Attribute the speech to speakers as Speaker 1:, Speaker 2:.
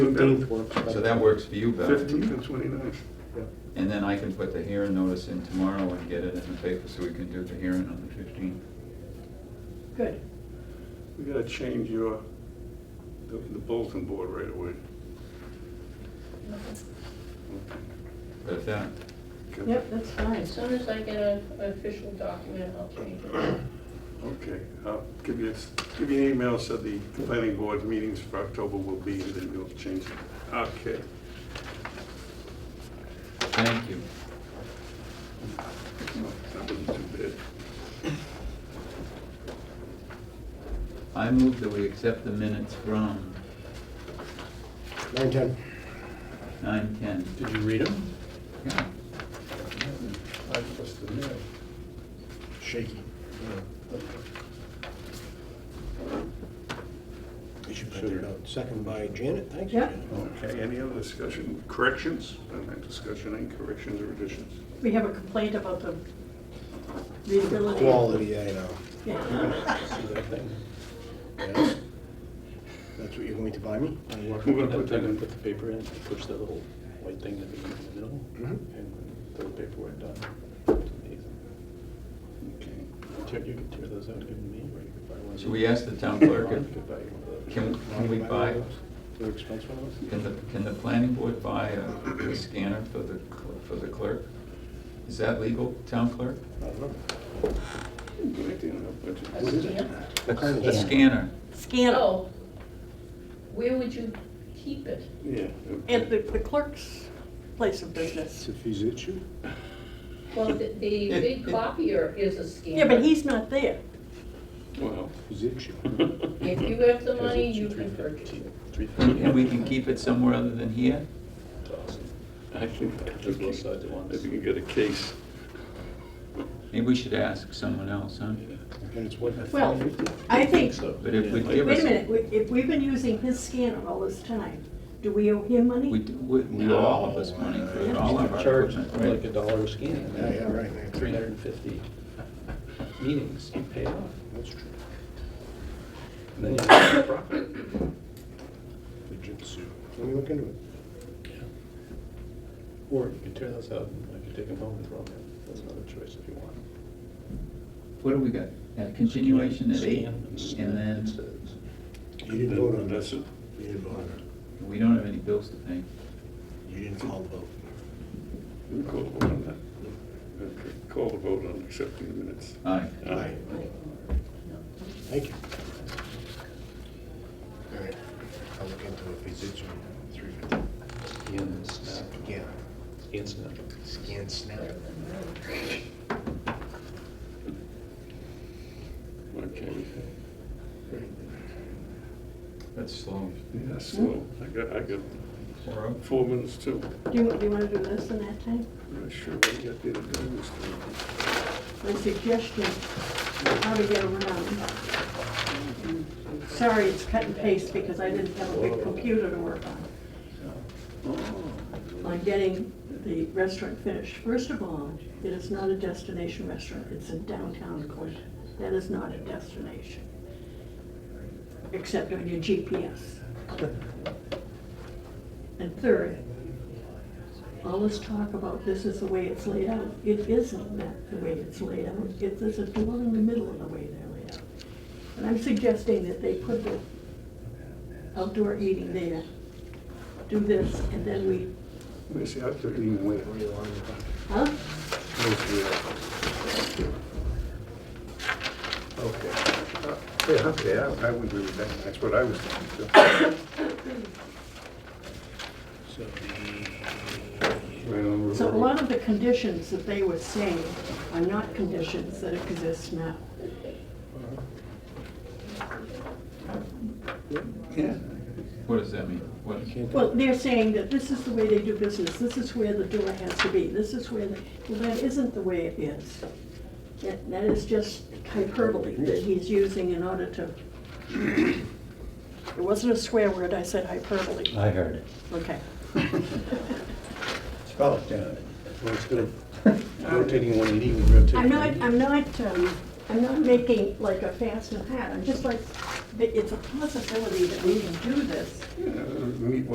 Speaker 1: Fifteenth works.
Speaker 2: So that works for you, Beth?
Speaker 1: Fifteenth and twenty-ninth.
Speaker 2: And then I can put the hearing notice in tomorrow and get it in the paper so we can do the hearing on the fifteenth.
Speaker 3: Good.
Speaker 1: We gotta change
Speaker 4: uh,
Speaker 1: your, the the bulletin board right away.
Speaker 2: But if that,
Speaker 1: Okay.
Speaker 3: Yep, that's fine.
Speaker 5: As soon as I get a- an official document, I'll change it.
Speaker 1: Okay, I'll give you, give you an email, so the planning board meetings for October will be, and then we'll change it. Okay.
Speaker 2: thank you.
Speaker 1: That wasn't too
Speaker 2: I move that we accept the minutes from
Speaker 4: Nine, ten.
Speaker 2: nine ten.
Speaker 6: Did you read them?
Speaker 2: Yeah,
Speaker 4: I just admit. Shaky. You should put it out. Second by Janet, thanks.
Speaker 3: Yeah.
Speaker 4: Janet.
Speaker 1: bad. Okay, any other discussion, corrections? Uh, Discussion, any corrections or additions?
Speaker 3: We have a complaint about the readability.
Speaker 4: Quality, I know.
Speaker 3: Yeah.
Speaker 4: See that thing? Yes. That's what you're going to buy me?
Speaker 1: We're gonna put that in.
Speaker 6: Put the paper in, push the little white thing that we need in the middle,
Speaker 4: Mhm.
Speaker 6: and throw the paperwork down. It's amazing.
Speaker 1: Okay.
Speaker 6: Tear- You could tear those out, give them to me, or you could buy one.
Speaker 2: Should we ask the town clerk if-
Speaker 6: You could buy one of those.
Speaker 2: can, can we buy,
Speaker 6: They're expensive ones?
Speaker 2: can the, can the planning board buy a a scanner for the, cl- for the clerk? Is that legal, town clerk?
Speaker 6: I don't know.
Speaker 1: Good idea, no budget.
Speaker 4: What is it?
Speaker 5: Yeah.
Speaker 4: What kind of
Speaker 2: A scanner,
Speaker 3: Scan
Speaker 5: Oh, where would you keep it?
Speaker 1: Yeah.
Speaker 3: at the the clerk's place of business.
Speaker 4: If he's at you?
Speaker 5: Well, the the big copier is a scanner.
Speaker 3: Yeah, but he's not there.
Speaker 1: Well,
Speaker 4: He's at you.
Speaker 5: If you have the money, you can purchase it.
Speaker 6: Three fifty.
Speaker 2: and we can keep it somewhere other than here?
Speaker 6: Awesome.
Speaker 1: I think that
Speaker 6: Do both sides at once.
Speaker 1: If you can get a case.
Speaker 2: Maybe we should ask someone else, huh?
Speaker 6: Yeah.
Speaker 4: And it's what?
Speaker 3: Well, I think,
Speaker 6: So,
Speaker 2: But if we
Speaker 6: yeah.
Speaker 2: give
Speaker 3: wait a
Speaker 2: us,
Speaker 3: minute, we- if we've been using his scanner all this time, do we owe him
Speaker 2: we,
Speaker 3: money?
Speaker 2: do- we we owe all of us money for all of our
Speaker 6: Charge
Speaker 2: equipment,
Speaker 6: like a
Speaker 2: right?
Speaker 6: dollar a scan.
Speaker 4: Yeah, yeah, right.
Speaker 6: Three hundred and fifty meetings you pay off.
Speaker 4: That's true.
Speaker 6: And then you-
Speaker 4: The jitsu. Let me look into it.
Speaker 6: Or you could tear those out and I could take them home and throw them in. That's another choice if you want.
Speaker 2: What do we got? A continuation at eight,
Speaker 6: Scan
Speaker 2: and then
Speaker 4: You didn't vote on
Speaker 1: That's
Speaker 4: this.
Speaker 1: it.
Speaker 4: You didn't vote on it.
Speaker 2: we don't have any bills to pay.
Speaker 4: You didn't call the vote.
Speaker 1: You call the vote on that. Okay, Call the vote on accepting the minutes.
Speaker 2: Aye.
Speaker 4: Aye. Thank you. All right, I'll look into it, if it's three fifty.
Speaker 6: Scan, snap,
Speaker 4: Scan,
Speaker 6: scan, snap.
Speaker 4: scan snap.
Speaker 1: Okay.
Speaker 2: That's slow.
Speaker 1: Yeah, so I got, I got
Speaker 2: We're up.
Speaker 1: four minutes too.
Speaker 3: Do you, do you wanna do this in that time?
Speaker 1: I'm not sure what I got there to do this time.
Speaker 3: My suggestion, how to get around. Sorry, it's cut and paste because I didn't have a big computer to work on. on getting the restaurant finished. First of all, it is not a destination restaurant, it's in downtown Clinton. That is not a destination, except on your GPS. And third, all this talk about this is the way it's laid out, it isn't that the way it's laid out. It, there's a door in the middle of the way they're laid out. And I'm suggesting that they put the outdoor eating there, do this, and then we
Speaker 1: Let me see, I couldn't even wait.
Speaker 3: Huh?
Speaker 1: Okay. Uh, Yeah, okay, I I would agree with that. That's what I was thinking too.
Speaker 4: So the,
Speaker 1: Right on the
Speaker 3: So a
Speaker 1: road.
Speaker 3: lot of the conditions that they were saying are not conditions that exist now.
Speaker 1: Yeah.
Speaker 2: What does that mean? What,
Speaker 3: Well, they're saying that this is the way they do business, this is where the door has to be, this is where the, well, that isn't the way it is. That, that is just hyperbole that he's using in order to. It wasn't a swear word, I said hyperbole.
Speaker 7: I heard it.
Speaker 3: Okay.
Speaker 7: It's probably down.
Speaker 4: well, it's gonna, rotating one eighty and rotating.
Speaker 3: I'm not, I'm not, um, I'm not making like a fast and hard, I'm just like, that it's a possibility that we can do this.
Speaker 1: Yeah, meet